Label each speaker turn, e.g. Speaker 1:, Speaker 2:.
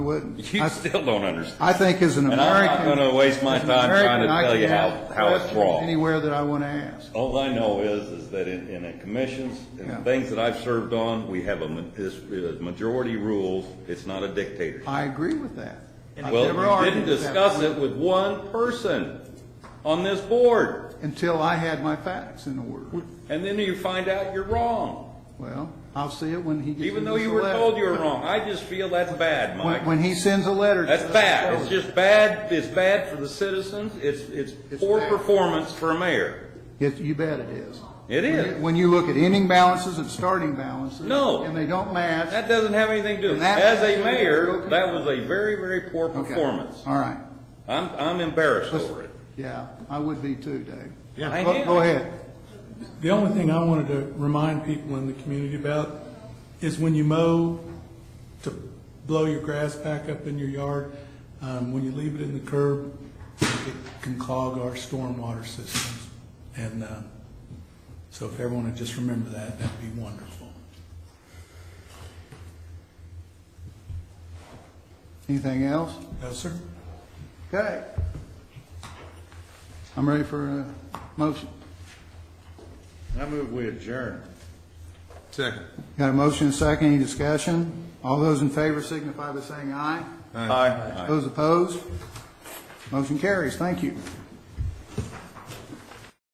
Speaker 1: wouldn't.
Speaker 2: You
Speaker 1: I-
Speaker 2: still don't understand.
Speaker 1: I think as an
Speaker 2: And I'm not
Speaker 1: American.
Speaker 2: gonna waste my
Speaker 1: as an
Speaker 2: time trying to
Speaker 1: American, I
Speaker 2: tell
Speaker 1: can
Speaker 2: you how-
Speaker 1: ask
Speaker 2: how it's
Speaker 1: questions
Speaker 2: wrong.
Speaker 1: Anywhere that I want to ask.
Speaker 2: All I know is, is that in, in the commissions
Speaker 1: Yeah.
Speaker 2: and things that I've served on, we have a, ma- this, uh, majority rules. It's not a dictator.
Speaker 1: I agree with that. I've never
Speaker 2: Well, you
Speaker 1: argued
Speaker 2: didn't
Speaker 1: with that
Speaker 2: discuss
Speaker 1: before,
Speaker 2: it with one person on this board,
Speaker 1: Until I had my facts in order.
Speaker 2: and then you find out you're wrong,
Speaker 1: Well, I'll see it when he gets.
Speaker 2: even
Speaker 1: me
Speaker 2: though
Speaker 1: this
Speaker 2: you were
Speaker 1: letter.
Speaker 2: told you were wrong. I just feel that's bad,
Speaker 1: When,
Speaker 2: Mike.
Speaker 1: when he sends a letter. to
Speaker 2: That's
Speaker 1: us,
Speaker 2: bad.
Speaker 1: tell
Speaker 2: It's
Speaker 1: us.
Speaker 2: just bad, it's bad for the citizens. It's, it's
Speaker 1: It's
Speaker 2: poor
Speaker 1: bad.
Speaker 2: performance for a mayor.
Speaker 1: It- You bet it is.
Speaker 2: It
Speaker 1: When
Speaker 2: is.
Speaker 1: you- When you look at ending balances and starting balances.
Speaker 2: No.
Speaker 1: And they don't match.
Speaker 2: That doesn't have anything to do,
Speaker 1: And that-
Speaker 2: as a mayor, that was a very, very poor
Speaker 1: Okay.
Speaker 2: performance.
Speaker 1: All right.
Speaker 2: I'm, I'm embarrassed
Speaker 1: Let's-
Speaker 2: over it.
Speaker 1: Yeah, I would be too, Dave.
Speaker 3: Yeah.
Speaker 2: I
Speaker 1: Go
Speaker 2: am.
Speaker 1: go ahead.
Speaker 4: The only thing I wanted to remind people in the community about is when you mow, to blow your grass back up in your yard, um, when you leave it in the curb, it can clog our stormwater systems. And, um, so if everyone would just remember that, that'd be wonderful.
Speaker 1: Anything else?
Speaker 4: No, sir?
Speaker 1: Okay. I'm ready for a motion.
Speaker 3: I move we adjourn. Second.
Speaker 1: Got a motion and a second, any discussion? All those in favor signify by saying aye.
Speaker 3: Aye.
Speaker 1: Those opposed? Motion carries, thank you.